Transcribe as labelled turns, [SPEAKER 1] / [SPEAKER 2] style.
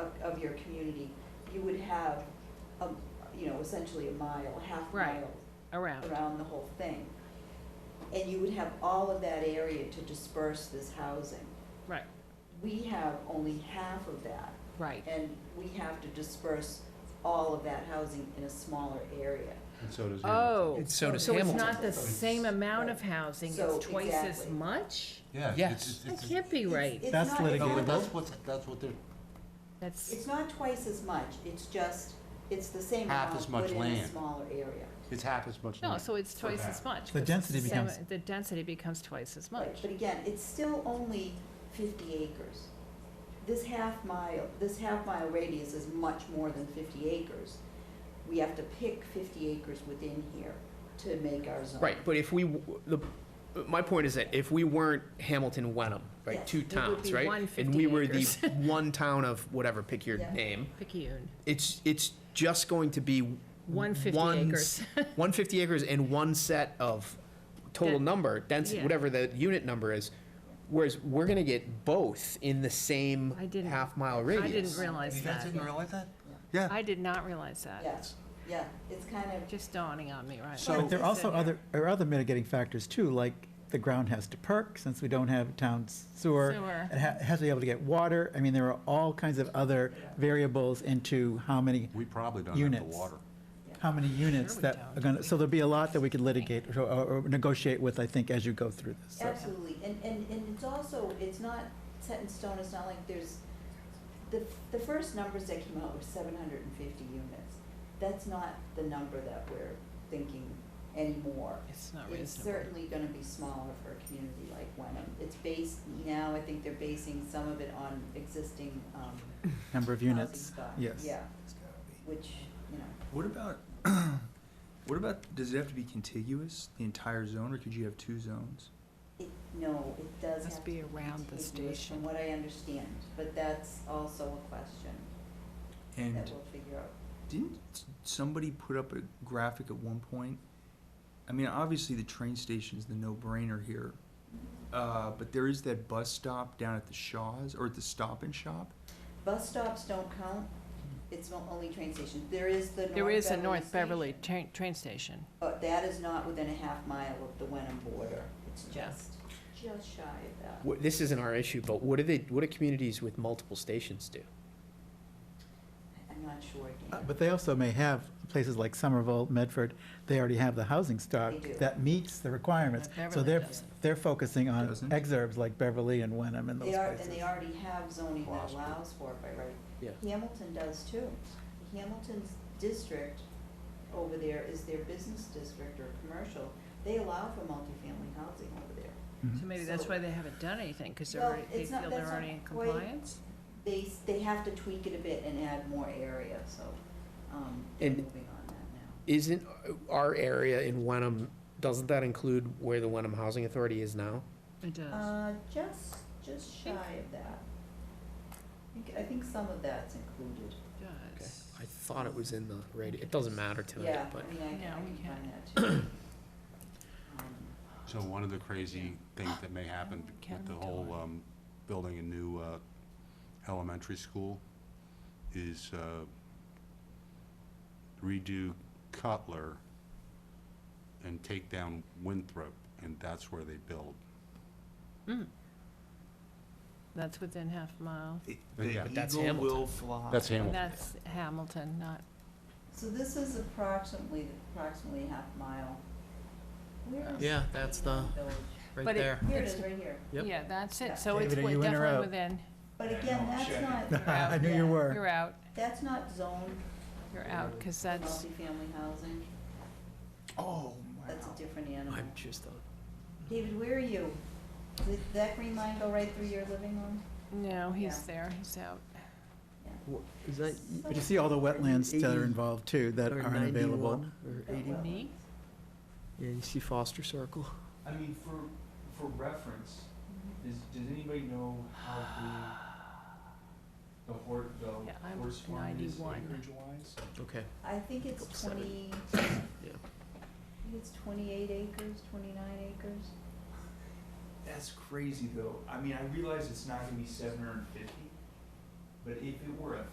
[SPEAKER 1] of your community, you would have, a you know, essentially a mile, a half
[SPEAKER 2] Right.
[SPEAKER 1] mile
[SPEAKER 2] around.
[SPEAKER 1] around the whole thing. And you would have all of that area to disperse this housing.
[SPEAKER 2] Right,
[SPEAKER 1] We have only half of that,
[SPEAKER 2] right.
[SPEAKER 1] and we have to disperse all of that housing in a smaller area.
[SPEAKER 3] And so does Hamilton.
[SPEAKER 2] Oh.
[SPEAKER 4] It's- so does
[SPEAKER 2] it's
[SPEAKER 4] Hamilton.
[SPEAKER 2] not the
[SPEAKER 1] It's-
[SPEAKER 2] same amount of housing,
[SPEAKER 1] So,
[SPEAKER 2] it's twice as
[SPEAKER 1] exactly.
[SPEAKER 2] much?
[SPEAKER 3] Yeah.
[SPEAKER 4] Yes.
[SPEAKER 3] it's-
[SPEAKER 2] That
[SPEAKER 3] it's-
[SPEAKER 2] can't be
[SPEAKER 1] It's-
[SPEAKER 2] right.
[SPEAKER 1] it's
[SPEAKER 5] That's
[SPEAKER 1] not- it's
[SPEAKER 3] No, but
[SPEAKER 5] litigatable.
[SPEAKER 1] not-
[SPEAKER 3] that's what's, that's what they're,
[SPEAKER 2] That's,
[SPEAKER 1] It's not twice as much, it's just, it's the same
[SPEAKER 3] Half
[SPEAKER 1] amount,
[SPEAKER 3] as much
[SPEAKER 1] but in a
[SPEAKER 3] land.
[SPEAKER 1] smaller area.
[SPEAKER 3] it's half as much.
[SPEAKER 2] no,
[SPEAKER 3] land
[SPEAKER 2] so it's
[SPEAKER 3] for
[SPEAKER 2] twice
[SPEAKER 3] that.
[SPEAKER 2] as much.
[SPEAKER 5] The
[SPEAKER 2] 'cause it's
[SPEAKER 5] density
[SPEAKER 2] the same-
[SPEAKER 5] becomes-
[SPEAKER 2] The density becomes twice as
[SPEAKER 1] Right,
[SPEAKER 2] much.
[SPEAKER 1] But again, it's still only fifty acres. This half mile, this half mile radius is much more than fifty acres. We have to pick fifty acres within here to make our zone.
[SPEAKER 4] Right, but if we, the, my point is that if we weren't Hamilton, Wenham,
[SPEAKER 1] Yes,
[SPEAKER 4] right, two
[SPEAKER 1] it would
[SPEAKER 2] be
[SPEAKER 4] towns, right?
[SPEAKER 2] 150
[SPEAKER 4] And we were the
[SPEAKER 2] acres.
[SPEAKER 4] one town of whatever, pick your
[SPEAKER 1] Yeah.
[SPEAKER 4] name,
[SPEAKER 2] Picayune,
[SPEAKER 4] it's, it's just going to be.
[SPEAKER 2] 150
[SPEAKER 4] one
[SPEAKER 2] acres.
[SPEAKER 4] s- 150 acres and one set of total
[SPEAKER 2] That-
[SPEAKER 4] number, density,
[SPEAKER 2] yeah.
[SPEAKER 4] whatever the unit number is. Whereas we're gonna get both in the same
[SPEAKER 2] I didn't-
[SPEAKER 4] half-mile radius.
[SPEAKER 2] I didn't realize
[SPEAKER 3] You guys
[SPEAKER 2] that.
[SPEAKER 3] didn't realize that? Yeah.
[SPEAKER 2] I did not realize that.
[SPEAKER 1] Yes, yeah, it's kind of,
[SPEAKER 2] Just dawning on me, right?
[SPEAKER 3] So-
[SPEAKER 5] But there are also
[SPEAKER 1] It's in
[SPEAKER 5] other, there are other mitigating factors too, like the ground has to perk, since we don't have town sewer.
[SPEAKER 2] Sewer.
[SPEAKER 5] It ha- it has to be able to get water. I mean, there are all kinds of other variables into how many,
[SPEAKER 3] We probably don't have the
[SPEAKER 5] Units.
[SPEAKER 3] water.
[SPEAKER 5] how many units
[SPEAKER 2] Sure we
[SPEAKER 5] that
[SPEAKER 2] don't.
[SPEAKER 5] are gonna, so there'll be a lot that we could litigate or- or or negotiate with, I think, as you go through this. uh, so.
[SPEAKER 1] absolutely, and, and, and it's also, it's not set in stone, it's not like there's, the, the first numbers that came out were seven hundred and fifty units. That's not the number that we're thinking anymore.
[SPEAKER 2] It's not
[SPEAKER 1] It's
[SPEAKER 2] reasonable.
[SPEAKER 1] certainly gonna be smaller for a community like Wenham. It's based, now I think they're basing some of it on existing, um,
[SPEAKER 5] Number of
[SPEAKER 1] housing
[SPEAKER 5] units,
[SPEAKER 1] stock.
[SPEAKER 5] yes.
[SPEAKER 1] Yeah, which, you know,
[SPEAKER 6] What about, what about, does it have to be contiguous, the entire zone, or could you have two zones?
[SPEAKER 1] it, no, it does have
[SPEAKER 2] Must
[SPEAKER 1] to be
[SPEAKER 2] be around the
[SPEAKER 1] contiguous from
[SPEAKER 2] station.
[SPEAKER 1] what I understand, but that's also a question that
[SPEAKER 6] And
[SPEAKER 1] we'll figure out.
[SPEAKER 6] didn't s- somebody put up a graphic at one point? I mean, obviously, the train station's the no-brainer here, uh, but there is that bus stop down at the Shaw's, or at the Stop and Shop?
[SPEAKER 1] Bus stops don't count. It's not only train stations. There is the North Beverly
[SPEAKER 2] There is a North Beverly
[SPEAKER 1] station,
[SPEAKER 2] train, train station.
[SPEAKER 1] But that is not within a half mile of the Wenham border. It's
[SPEAKER 2] Yeah.
[SPEAKER 1] just, just shy of that.
[SPEAKER 4] Wh- This isn't our issue, but what do they, what do communities with multiple stations do?
[SPEAKER 1] I'm not sure,
[SPEAKER 5] Uh,
[SPEAKER 1] Dan.
[SPEAKER 5] But they also may have places like Somerville, Medford, they already have the housing stock
[SPEAKER 1] They do.
[SPEAKER 5] that meets the requirements.
[SPEAKER 2] But
[SPEAKER 5] So
[SPEAKER 2] Beverly
[SPEAKER 5] they're,
[SPEAKER 2] doesn't.
[SPEAKER 5] they're focusing on
[SPEAKER 6] Doesn't.
[SPEAKER 5] exurbs like Beverly and Wenham and those
[SPEAKER 1] They
[SPEAKER 5] places.
[SPEAKER 1] are, and they already have zoning that
[SPEAKER 3] Possible.
[SPEAKER 1] allows for it by right.
[SPEAKER 4] Yeah.
[SPEAKER 1] Hamilton does too. Hamilton's district over there is their business district or commercial. They allow for multifamily housing over there.
[SPEAKER 5] Mm-hmm.
[SPEAKER 2] So maybe that's
[SPEAKER 1] So-
[SPEAKER 2] why they haven't done anything, because they're,
[SPEAKER 1] Well,
[SPEAKER 2] already- they
[SPEAKER 1] it's not-
[SPEAKER 2] feel they're
[SPEAKER 1] that's not
[SPEAKER 2] already in
[SPEAKER 1] quite-
[SPEAKER 2] compliance?
[SPEAKER 1] They, s- they have to tweak it a bit and add more area, so, um, they're
[SPEAKER 4] And-
[SPEAKER 1] moving on that now.
[SPEAKER 4] Isn't our area in Wenham, doesn't that include where the Wenham Housing Authority is now?
[SPEAKER 2] It does.
[SPEAKER 1] Uh, just, just shy of that. I think, I think some of that's included.
[SPEAKER 2] It
[SPEAKER 4] Okay,
[SPEAKER 2] does.
[SPEAKER 4] I thought it was in the radio, it doesn't matter tonight,
[SPEAKER 1] Yeah,
[SPEAKER 4] but.
[SPEAKER 1] I mean, I can,
[SPEAKER 2] Yeah,
[SPEAKER 1] I
[SPEAKER 2] we
[SPEAKER 1] can find
[SPEAKER 2] can.
[SPEAKER 1] that too. Um,
[SPEAKER 3] So one of the crazy things that may happen with the whole, um, building a new, uh, elementary school is, uh, redo Cutler and take down Winthrop, and that's where they build.
[SPEAKER 2] That's within half a mile.
[SPEAKER 3] Yeah,
[SPEAKER 4] but that's Hamilton.
[SPEAKER 6] fly.
[SPEAKER 3] That's
[SPEAKER 2] And
[SPEAKER 3] Hamilton.
[SPEAKER 2] that's Hamilton, not,
[SPEAKER 1] So this is approximately, approximately a half mile. Where is?
[SPEAKER 4] Yeah, that's the,
[SPEAKER 1] Village?
[SPEAKER 2] But
[SPEAKER 4] right
[SPEAKER 2] it-
[SPEAKER 4] there.
[SPEAKER 1] Here it
[SPEAKER 2] it's-
[SPEAKER 1] is, right here.
[SPEAKER 4] Yep.
[SPEAKER 2] yeah, that's it. So
[SPEAKER 5] David,
[SPEAKER 2] it's
[SPEAKER 5] are
[SPEAKER 2] wi-
[SPEAKER 5] you in or
[SPEAKER 2] definitely
[SPEAKER 5] out?
[SPEAKER 2] within,
[SPEAKER 1] But
[SPEAKER 6] Yeah,
[SPEAKER 1] again,
[SPEAKER 6] no,
[SPEAKER 1] that's
[SPEAKER 6] shit.
[SPEAKER 1] not.
[SPEAKER 5] I knew you
[SPEAKER 1] yeah,
[SPEAKER 5] were.
[SPEAKER 2] you're out,
[SPEAKER 1] That's not zoned
[SPEAKER 2] you're out, because
[SPEAKER 1] for
[SPEAKER 2] that's,
[SPEAKER 1] multifamily housing.
[SPEAKER 6] Oh,
[SPEAKER 1] That's a
[SPEAKER 6] wow.
[SPEAKER 1] different animal.
[SPEAKER 4] I'm just, on-
[SPEAKER 1] David, where are you? Did that green line go right through your living room?
[SPEAKER 2] no, he's
[SPEAKER 1] Yeah.
[SPEAKER 2] there, he's out.
[SPEAKER 4] wh- is that?
[SPEAKER 5] But you see all the wetlands that are
[SPEAKER 4] Eighty
[SPEAKER 5] involved too, that
[SPEAKER 4] or
[SPEAKER 5] aren't available.
[SPEAKER 4] 91 or
[SPEAKER 1] That
[SPEAKER 4] 80?
[SPEAKER 1] Oh, well.
[SPEAKER 2] Me?
[SPEAKER 4] Yeah, you see Foster Circle.
[SPEAKER 6] I mean, for, for reference,
[SPEAKER 2] Mm-hmm.
[SPEAKER 6] does, does anybody know how big the horse,
[SPEAKER 2] Yeah,
[SPEAKER 6] the
[SPEAKER 2] I'm
[SPEAKER 6] horse farm is
[SPEAKER 2] 91.
[SPEAKER 6] acreage wise?
[SPEAKER 4] Okay.
[SPEAKER 1] I think it's
[SPEAKER 4] Couple seven.
[SPEAKER 1] twenty,
[SPEAKER 4] Yeah.
[SPEAKER 1] I think it's twenty-eight acres, twenty-nine acres.
[SPEAKER 6] That's crazy though, I mean, I realize it's not gonna be seven hundred and fifty, but if it were a